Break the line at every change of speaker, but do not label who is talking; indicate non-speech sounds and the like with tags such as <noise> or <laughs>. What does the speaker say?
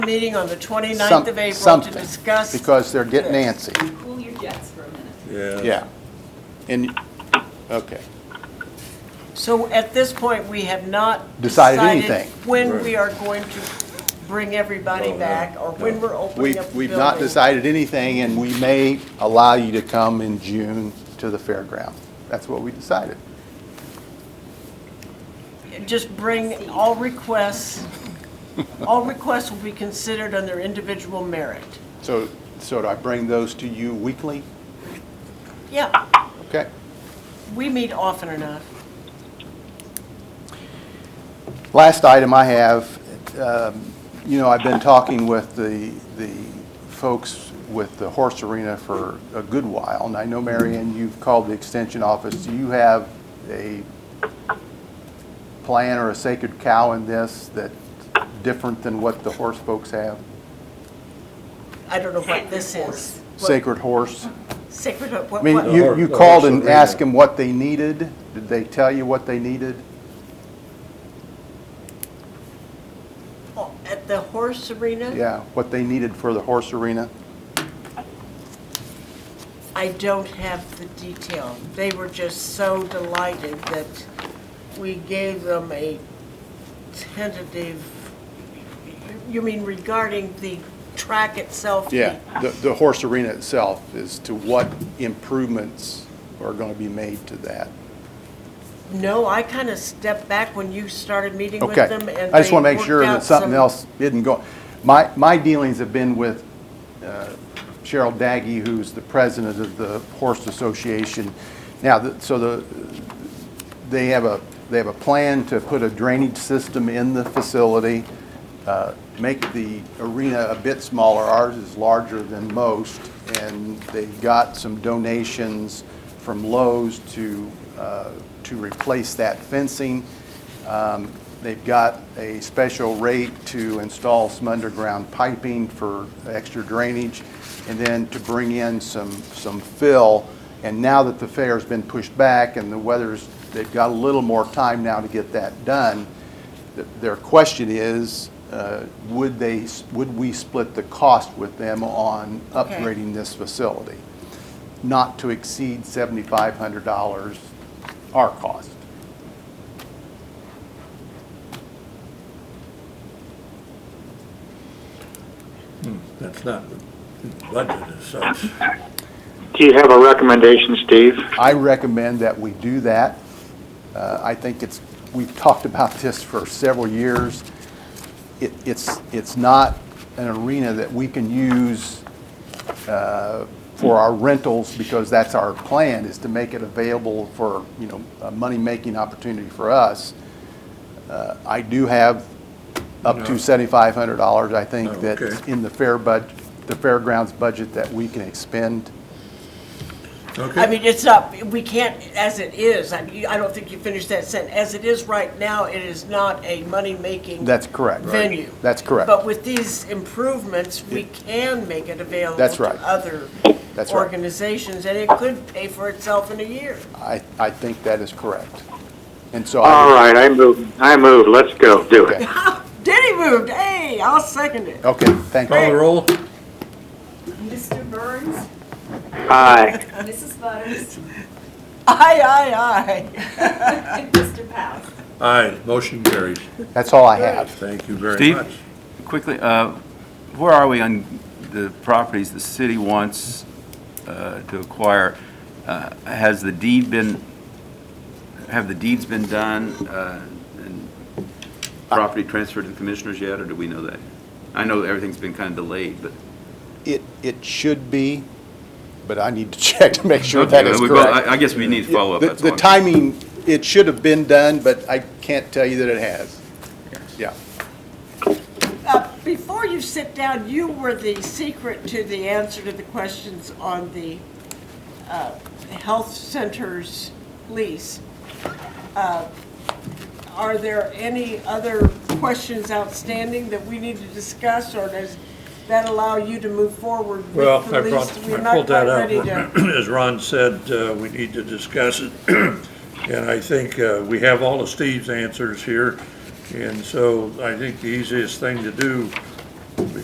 meeting on the 29th
Some-
of April to
something,
discuss.
Because they're getting antsy,
Cool your jets for a minute.
yeah. And, okay,
So at this point, we have not.
Decided anything.
When
Right.
we are going to bring everybody
No, no,
back, or when we're opening
we,
up the
we've not
building.
decided anything, and we may allow you to come in June to the fairground. That's what we decided.
Just bring all requests, all requests will be considered on their individual merit.
So, so do I bring those to you weekly?
Yeah,
Okay,
we meet often enough.
Last item I have, um, you know, I've been talking with the, the folks with the horse arena for a good while, and I know, Marion, you've called the extension office. Do you have a plan or a sacred cow in this that's different than what the horse folks have?
I don't know what this is. What-
Sacred horse?
Sacred, what,
I
what?
mean, you,
hor-
you
the
called
horse
and
arena.
asked them what they needed. Did they tell you what they needed?
Oh, At the horse arena?
Yeah, what they needed for the horse arena?
I don't have the detail. They were just so delighted that we gave them a tentative, you mean regarding the track itself?
Yeah, the, the horse arena itself is to what improvements are going to be made to that.
No, I kind of stepped back when you started meeting with
Okay.
them and
I just want
they
to make sure
worked
that
out
something
some-
else didn't go. My, my dealings have been with uh, Cheryl Daggy, who's the president of the Horse Association. Now, the- so the, they have a, they have a plan to put a drainage system in the facility, uh, make the arena a bit smaller. Ours is larger than most, and they got some donations from Lowe's to, uh, to replace that fencing. Um, They've got a special rate to install some underground piping for extra drainage, and then to bring in some, some fill. And now that the fair's been pushed back and the weather's, they've got a little more time now to get that done, th- their question is, uh, would they, s- would we split the cost with them on
Okay.
upgrading this facility? Not to exceed $7,500, our cost.
That's not the budget as such.
Do you have a recommendation, Steve?
I recommend that we do that. Uh, I think it's, we've talked about this for several years. It- It's, it's not an arena that we can use uh, for our rentals because that's our plan, is to make it available for, you know, a money-making opportunity for us. Uh, I do have up to
No.
$7,500, I think,
Oh,
that's
okay.
in the fair bud, the fairgrounds budget that we can expend.
I
Okay,
mean, it's not, we can't, as it is, I, I don't think you finished that sentence. As it is right now, it is not a money-making.
That's correct.
venue.
That's correct.
But with these improvements, we can make it available
That's
to
right.
other
That's right.
organizations, and it could pay for itself in a year. <laughs>
I, I think that is correct. And so,
All
I
right, I move, I move, let's go, do it.
Okay.
Denny moved, hey, I'll second it.
okay, thank
call the
you.
roll?
Mr. Burns,
Aye,
Mrs. Butters,
Aye, aye, aye.
and Mr. Powell.
Aye, motion carries.
That's all I have.
Thank you very
Steve?
much.
Quickly, uh, where are we on the properties the city wants uh, to acquire? Uh, Has the deed been, have the deeds been done uh, and property transferred to the commissioners yet, or do we know that? I know everything's been kind of delayed, but.
It, it should be, but I need to <laughs> check to make sure that is
Okay, well,
correct.
I I guess we need to follow up,
The-
that's all.
The timing, it should have been done, but I can't tell you that it has. Yeah.
Uh, Before you sit down, you were the secret to the answer to the questions on the uh, health center's lease. Uh, Are there any other questions outstanding that we need to discuss, or does that allow you to move forward with the
Well,
lease?
I brought,
We're
I
not
pulled that
quite
out.
ready to-
<clears throat> As Ron said, uh, we need to discuss it. <clears throat> And I think uh, we have all of Steve's answers here. And so I think the easiest thing to do